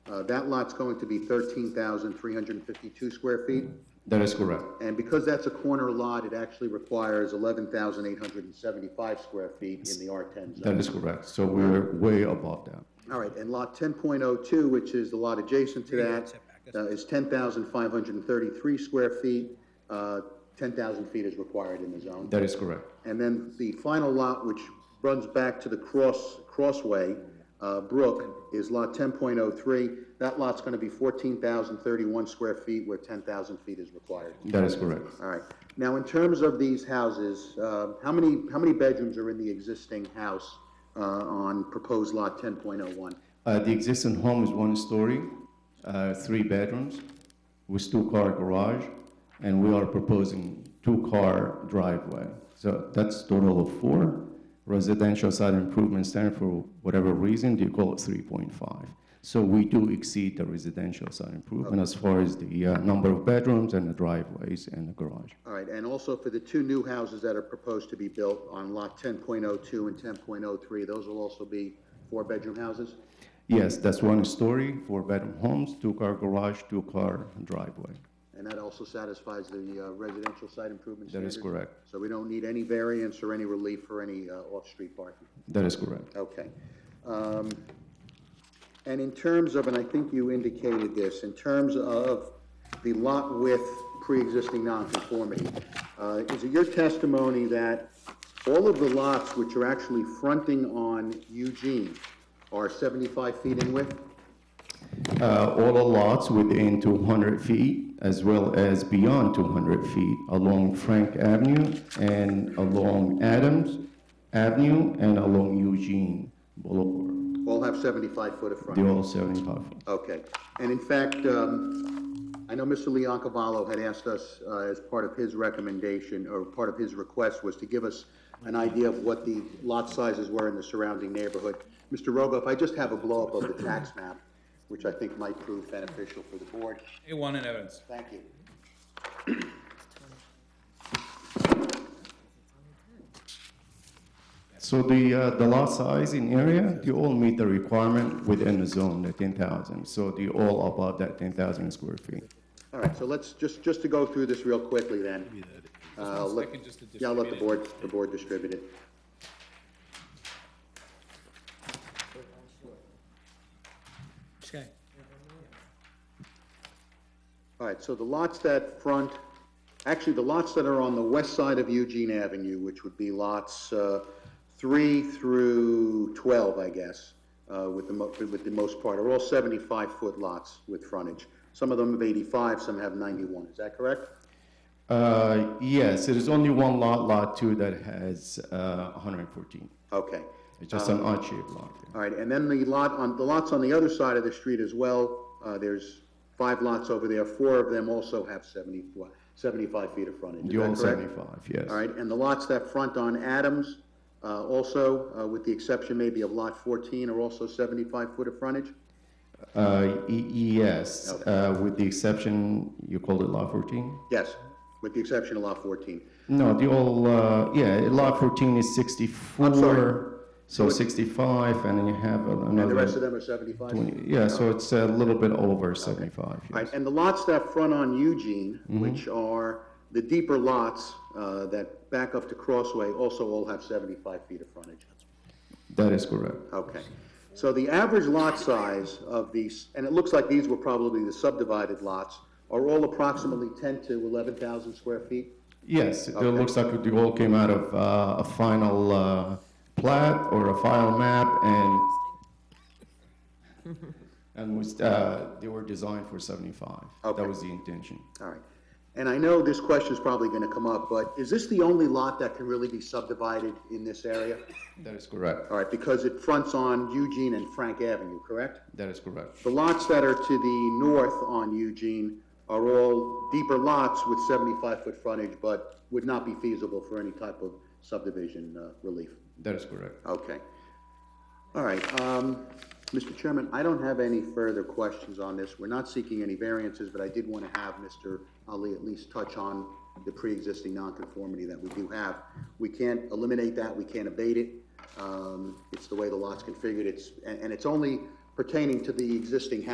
Uh, That lot's going to be 13,352 square feet, That is correct. and because that's a corner lot, it actually requires 11,875 square feet in the R10 zone. That is correct. So we're way above that. All right, and lot ten point oh two, which is the lot adjacent to that, uh, is ten thousand five hundred and thirty-three square feet. Uh, ten thousand feet is required in the zone. That is correct. And then the final lot, which runs back to the cross, crossway, uh, Brook, is lot ten point oh three. That lot's gonna be fourteen thousand thirty-one square feet where ten thousand feet is required. That is correct. All right, now in terms of these houses, uh, how many, how many bedrooms are in the existing house, uh, on proposed lot ten point oh one? Uh, the existing home is one story, uh, three bedrooms, with two-car garage, and we are proposing two-car driveway. So that's total of four. Residential side improvement standard, for whatever reason, they call it 3.5. So we do exceed the residential side improvement as far as the uh, number of bedrooms and the driveways and the garage. All right, and also for the two new houses that are proposed to be built on lot ten point oh two and ten point oh three, those will also be four-bedroom houses? Yes, that's one story, four-bedroom homes, two-car garage, two-car driveway. And that also satisfies the uh, residential site improvement That is standards? correct. So we don't need any variance or any relief for any uh, off-street parking? That is correct. Okay. Um, And in terms of, and I think you indicated this, in terms of the lot width pre-existing nonconformity, uh, is it your testimony that all of the lots which are actually fronting on Eugene are 75 feet in width? Uh, All the lots within 200 feet, as well as beyond 200 feet, along Frank Avenue and along Adams Avenue and along Eugene Boulevard. All have 75-foot of front? They're all 75 foot. Okay, and in fact, um, I know Mr. Leoncavallo had asked us, uh, as part of his recommendation, or part of his request, was to give us an idea of what the lot sizes were in the surrounding neighborhood. Mr. Rogoff, I just have a blow-up of the tax map, which I think might prove beneficial for the board. A1 in evidence. Thank you. So the, uh, the lot size in area, they all meet the requirement within the zone, the 10,000. So they all above that 10,000 square feet. All right, so let's, just, just to go through this real quickly then. Uh, let- second, just to Yeah, I'll let the distribute board, the board distribute it. Okay. All right, so the lots that front, actually, the lots that are on the west side of Eugene Avenue, which would be lots uh, 3 through 12, I guess, uh, with the, mo- with the most part, are all 75-foot lots with frontage. Some of them have 85, some have 91, is that correct? Uh, Yes, it is only one lot, Lot 2, that has uh, 114. Okay, It's just an Uh-huh. odd-shaped lot. all right, and then the lot on, the lots on the other side of the street as well, uh, there's five lots over there, four of them also have 70, 75 feet of frontage, is They're all that correct? 75, yes. All right, and the lots that front on Adams, uh, also, uh, with the exception maybe of lot 14, are also 75-foot of frontage? Uh, e- Yes, uh, with the exception, you called it Lot 14? Yes, with the exception of lot 14. No, the all, uh, yeah, Lot 14 is 64. So 65, and then you have another. And the rest Oh. of them are 75? All 20 Yeah, so it's a little bit over 75, yes. right, and the lots that front on Eugene, which are the deeper lots uh, that back up to Crossway, also all have 75 feet of frontage. That is correct. Okay. So the average lot size of these, and it looks like these were probably the subdivided lots, are all approximately 10 to 11,000 square feet? Yes, it looks like the all came out of uh, a final uh, plat or a final map, and, and was, uh, they were designed for 75. Okay. That was the intention. All right. And I know this question's probably going to come up, but is this the only lot that can really be subdivided in this area? That is correct. All right, because it fronts on Eugene and Frank Avenue, correct? That is correct. The lots that are to the north on Eugene are all deeper lots with 75-foot frontage, but would not be feasible for any type of subdivision uh, relief. That is correct. Okay. All right, um, Mr. Chairman, I don't have any further questions on this. We're not seeking any variances, but I did want to have Mr. Ali at least touch on the pre-existing nonconformity that we do have. We can't eliminate that, we can't abate it. Um, it's the way the lot's configured, it's, and, and it's only pertaining to the existing house.